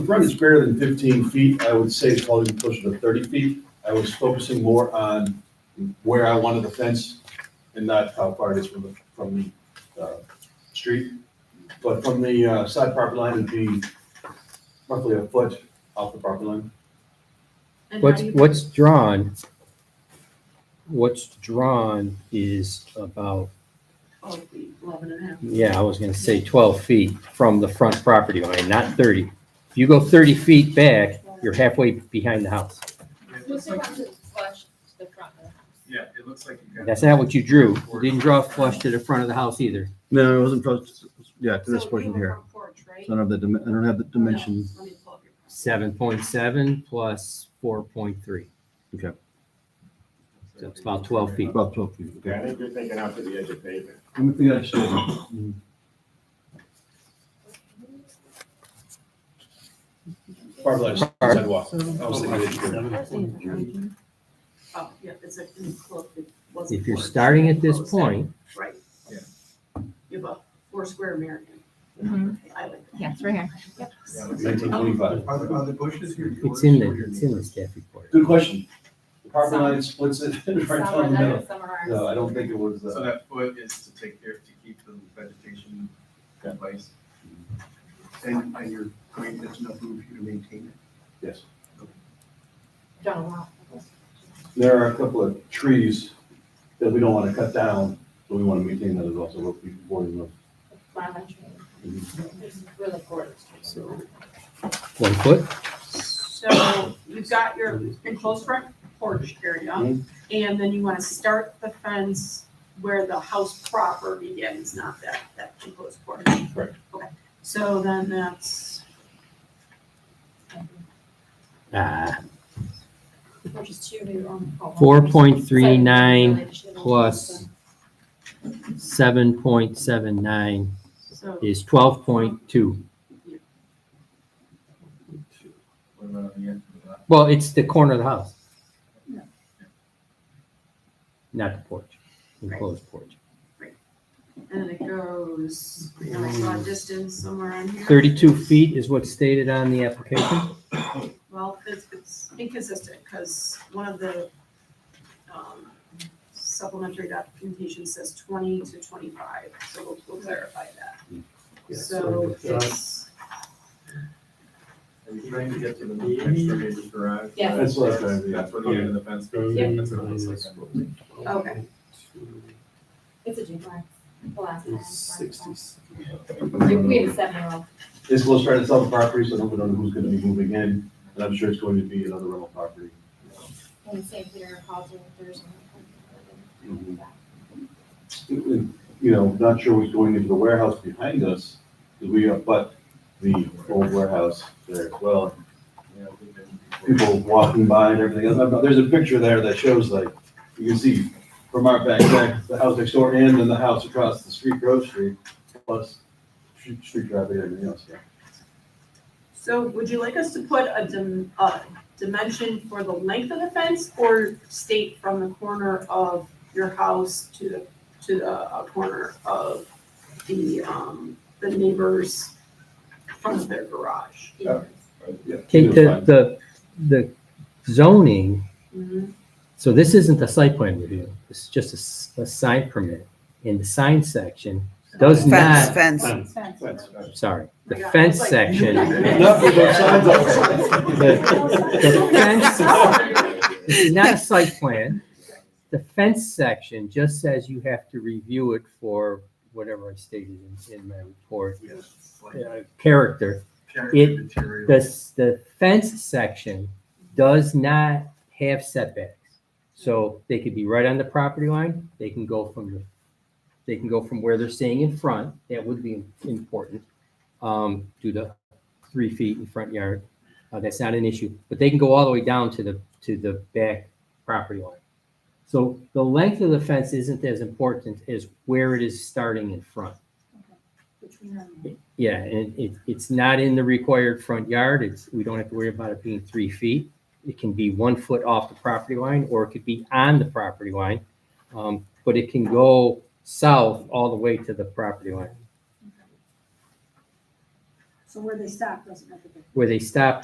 The front is greater than fifteen feet, I would say it's probably closer to thirty feet. I was focusing more on where I wanted the fence and not how far it is from the, from the, uh, street. But from the, uh, side property line would be roughly a foot off the property line. And how What's, do you- what's drawn, what's drawn is about, Oh, the 11 and a half. yeah, I was gonna say twelve feet from the front property line, not thirty. If you go thirty feet back, you're halfway behind the house. It What's looks the like, one that's flush to the front of the house? yeah, it looks like you got. That's not what you drew. You didn't draw flush to the front of the house either. No, it wasn't, close- yeah, to this So portion you were here. front porch, right? So I don't have the, dim- I don't have the dimension. Let me pull up your- Seven point seven plus four point three. So it's about 12 feet. About twelve feet. Yeah, I okay. think you're thinking out to the edge of pavement. Let me think I should. Mhm. Property line, is sidewalk. I was thinking it's greater. Oh, yeah, it's a, enclosed- it wasn't If you're porch, starting at this enclosed area. point, Right. Yeah. You have a four square American. I like that. Yes, right here. Nineteen twenty-five. Are the, are the bushes here? it's in the, it's in the staff report. Good question. The property line splits it right Some are down the middle. those, some are No, ours. I don't think it was, So uh, that foot is to take care, to keep the vegetation in place. And, and you're, going there's enough room for you to maintain yes. Don't allow. There are a couple of trees that we don't want to cut down, so we want to maintain that as well, so we'll be boarding them. Mama tree. It's Really gorgeous. So- One foot? So you've got your enclosed front porch area, Mhm. and then you want to start the fence where the house proper begins, not that, that enclosed porch. Correct. Okay, so then that's, Ah, Which is two to your own home. four point three nine Related to the- plus seven point seven nine so is twelve point two. it. What about on the end of the lot? Well, it's the corner of the house. Not the porch, enclosed porch. And then it goes, you know, I saw a distance somewhere on here. Thirty-two feet is what's stated on the application. Well, it's, it's inconsistent, because one of the um, supplementary documentation says twenty to twenty-five, so we'll, we'll clarify that. So it's, Are you trying to get to the next door neighbor's garage? Yeah. That's what I was trying to do. That's where the end of the fence goes. Yeah. That's what it looks like. okay, It's a duplex. The last one. Sixties. Like, we had a seven-year-old. It's supposed to try to sell the property, so nobody knows who's gonna be moving in, and I'm sure it's going to be another rental property. And St. Peter called you Thursday. Mhm. You know, not sure what's going into the warehouse behind us, because we have but the old warehouse there as well. Yeah, we've been before. People walking by and everything else. I've- There's a picture there that shows like, you can see from our back, back, the house next door and then the house across the street, Grove Street, plus street street traffic and everything else, yeah. so would you like us to put a dim, a dimension for the length of the fence, or state from the corner of your house to the, to the uh, corner of the, um, the neighbor's, front of their garage? Yeah. Take the, the, the zoning, Mhm. so this isn't the site plan review, this is just a s- a, sign permit. And the sign section does Fence, not, fence. sorry, the Yeah, I was fence like- section, Enough with those signs up there. the fence, this is not a site plan. The fence section just says you have to review it for whatever I stated in, in my report, Yeah, it's like uh, character. character It- deterioration. The, s- the fence section does not have setbacks. So they could be right on the property line, they can go from the, they can go from where they're staying in front, that would be important. Um, due to three feet in front yard, uh, that's not an issue, but they can go all the way down to the, to the back property line. So the length of the fence isn't as important as where it is starting in front. Yeah, and it, it's not in the required front yard. It's, we don't have to worry about it being three feet. It can be one foot off the property line or it could be on the property line. Um, but it can go south all the way to the property line. So where they stop doesn't make a difference. where they stop